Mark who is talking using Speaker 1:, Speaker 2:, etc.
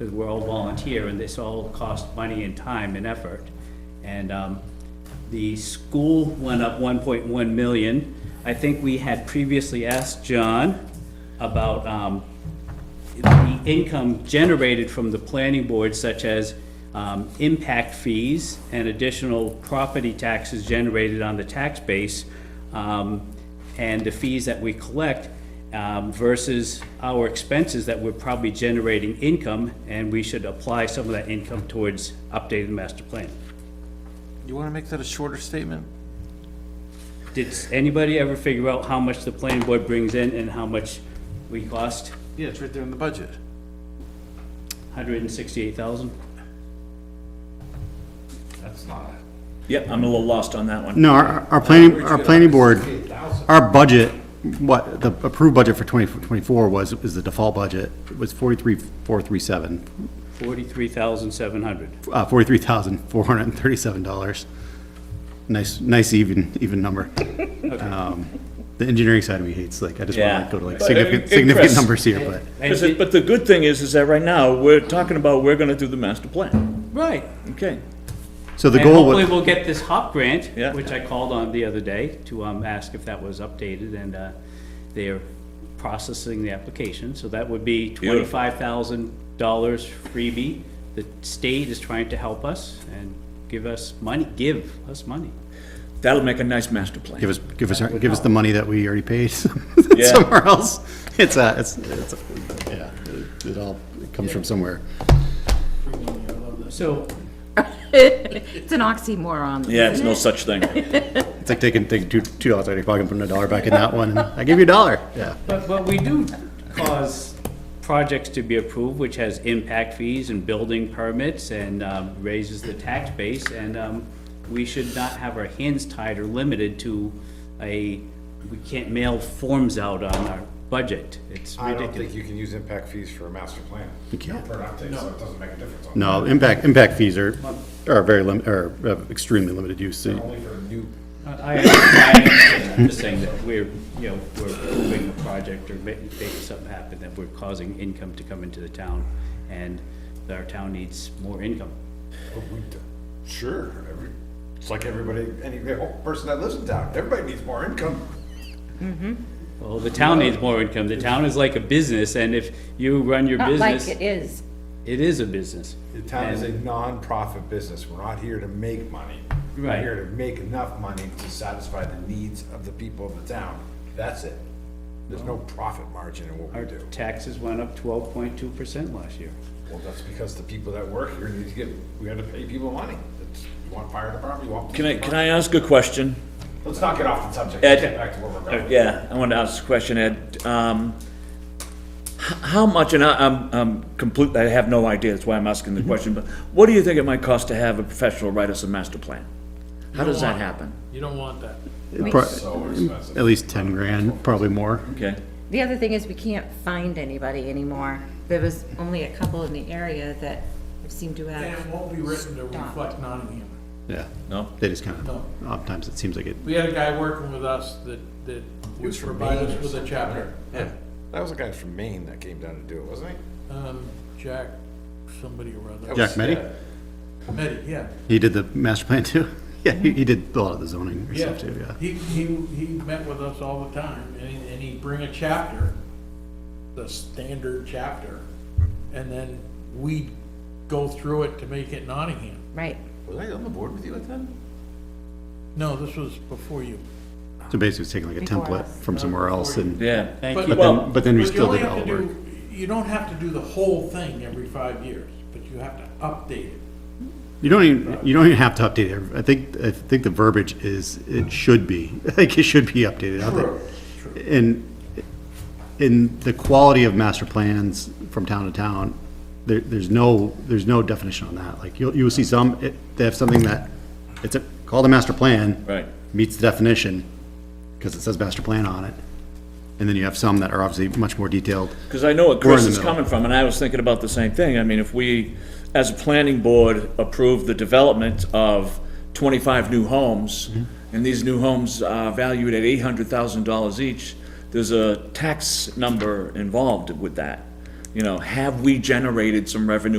Speaker 1: because we're all volunteer, and this all costs money and time and effort. And um, the school went up one point one million. I think we had previously asked John about um, the income generated from the planning board, such as um, impact fees and additional property taxes generated on the tax base, um, and the fees that we collect um, versus our expenses that we're probably generating income, and we should apply some of that income towards updated master plan.
Speaker 2: You want to make that a shorter statement?
Speaker 1: Did anybody ever figure out how much the planning board brings in and how much we cost?
Speaker 2: Yeah, it's right there in the budget.
Speaker 1: Hundred and sixty-eight thousand?
Speaker 2: That's not.
Speaker 3: Yep, I'm a little lost on that one.
Speaker 4: No, our, our planning, our planning board, our budget, what, the approved budget for 2024 was, is the default budget, was 43,437,
Speaker 1: Forty-three thousand seven hundred.
Speaker 4: uh, $43,437. Nice, nice even, even number. Um, The engineering side of me hates, like, I just
Speaker 3: Yeah.
Speaker 4: want to go to like
Speaker 3: But, uh,
Speaker 4: significant,
Speaker 3: impress-
Speaker 4: significant numbers here, but.
Speaker 3: Because it- But the good thing is, is that right now, we're talking about, we're gonna do the master plan.
Speaker 1: Right.
Speaker 3: Okay.
Speaker 4: So the
Speaker 1: And
Speaker 4: goal was.
Speaker 1: hopefully we'll get this HOP grant,
Speaker 3: Yeah.
Speaker 1: which I called on the other day to um, ask if that was updated, and uh, they're processing the application, so that would be
Speaker 3: Beautiful.
Speaker 1: twenty-five thousand dollars freebie. The state is trying to help us and give us money, give us money.
Speaker 3: That'll make a nice master plan.
Speaker 4: Give us, give us, our- give us the money that we already paid
Speaker 3: Yeah.
Speaker 4: somewhere else. It's a, it's, it's, a- yeah, it- it all comes from somewhere.
Speaker 1: So,
Speaker 5: It's an oxymoron.
Speaker 3: Yeah, it's no such thing.
Speaker 4: It's like taking, taking two, two dollars out of your pocket and putting a dollar back in that one. and I give you a dollar. Yeah.
Speaker 1: but, but we do cause projects to be approved, which has impact fees and building permits and um, raises the tax base, and um, we should not have our hands tied or limited to a, we can't mail forms out on our budget. It's
Speaker 6: I don't think
Speaker 1: ridiculous.
Speaker 6: you can use impact fees for a master plan.
Speaker 4: You can't.
Speaker 6: For an update, so it doesn't make a difference. on-
Speaker 4: No, impact, impact fees are, are very lim, are of extremely limited use. So
Speaker 6: Only for new,
Speaker 1: I, I understand, I'm just saying that we're, you know, we're approving a project or ma- making something happen, that we're causing income to come into the town, and that our town needs more income.
Speaker 6: but we d- sure, every, it's like everybody, any whole person that lives in town, everybody needs more income.
Speaker 1: Well, the town needs more income. The town is like a business, and if you run your
Speaker 5: Not like
Speaker 1: business,
Speaker 5: it is.
Speaker 1: it is a business.
Speaker 6: The town is a nonprofit business, we're not here to make money.
Speaker 1: Right.
Speaker 6: We're here to make enough money to satisfy the needs of the people of the town, that's it. There's no profit margin in what
Speaker 1: Our
Speaker 6: we do.
Speaker 1: taxes went up twelve point two percent last year.
Speaker 6: Well, that's because the people that work here need to get, we gotta pay people money. It's- You want fire department, you want.
Speaker 3: Can I, can I ask a question?
Speaker 6: Let's not get off the subject,
Speaker 3: Ed.
Speaker 6: let's get back to where we're going.
Speaker 3: Yeah, I wanted to ask a question, Ed. Um, h- how much, and I, I'm, I'm complete, I have no idea, that's why I'm asking the question, but what do you think it might cost to have a professional write us a master plan? How does that happen?
Speaker 7: You don't want that.
Speaker 4: pro-
Speaker 6: So expensive.
Speaker 4: at least ten grand, probably more.
Speaker 3: Okay,
Speaker 5: The other thing is we can't find anybody anymore. There was only a couple in the area that seem to
Speaker 7: And it
Speaker 5: have.
Speaker 7: won't be written to reflect Nottingham.
Speaker 4: Yeah.
Speaker 3: no?
Speaker 4: They just kind
Speaker 7: No.
Speaker 4: of, oftentimes it seems like it,
Speaker 7: We had a guy working with us that, that would
Speaker 6: from
Speaker 7: provide
Speaker 6: Maine
Speaker 7: us
Speaker 6: or
Speaker 7: with a
Speaker 6: something,
Speaker 7: chapter. Yeah.
Speaker 6: That was a guy from Maine that came down to do it, wasn't he?
Speaker 7: Um, Jack, somebody or other.
Speaker 4: Jack Meddy,
Speaker 6: Oh.
Speaker 7: Meddy, yeah.
Speaker 4: he did the master plan too. Yeah, he, he did a lot of the zoning and
Speaker 7: Yeah.
Speaker 4: stuff too, yeah.
Speaker 7: He, he, he met with us all the time and, he- and he'd bring a chapter, the standard chapter. And then we'd go through it to make it Nottingham.
Speaker 5: Right.
Speaker 6: Was I on the board with you at that?
Speaker 7: No, this was before you.
Speaker 4: So basically it's taking like a
Speaker 5: Before
Speaker 4: template
Speaker 5: us.
Speaker 4: from somewhere else and,
Speaker 3: Yeah.
Speaker 1: Thank
Speaker 4: but
Speaker 1: you.
Speaker 3: Well-
Speaker 4: then, but then we
Speaker 7: But you
Speaker 4: still
Speaker 7: only
Speaker 4: did
Speaker 7: have
Speaker 4: all
Speaker 7: to
Speaker 4: the work.
Speaker 7: do- You don't have to do the whole thing every five years, but you have to update it.
Speaker 4: You don't even, you don't even have to update it. I think, I think the verbiage is, it should be, I think it should be updated. I
Speaker 7: True,
Speaker 4: think- And, in the quality of master plans from town to town, there, there's no, there's no definition on that. Like, you'll, you'll see some, it- they have something that, it's a- called a master plan.
Speaker 3: Right.
Speaker 4: Meets the definition, because it says master plan on it. And then you have some that are obviously much more detailed.
Speaker 3: Because I know what
Speaker 4: We're in
Speaker 3: Chris
Speaker 4: the
Speaker 3: is
Speaker 4: middle.
Speaker 3: coming from, and I was thinking about the same thing. I mean, if we, as a planning board, approve the development of twenty-five new homes,
Speaker 4: Mm-hmm.
Speaker 3: and these new homes are valued at eight hundred thousand dollars each, there's a tax number involved with that. You know, have we generated some revenue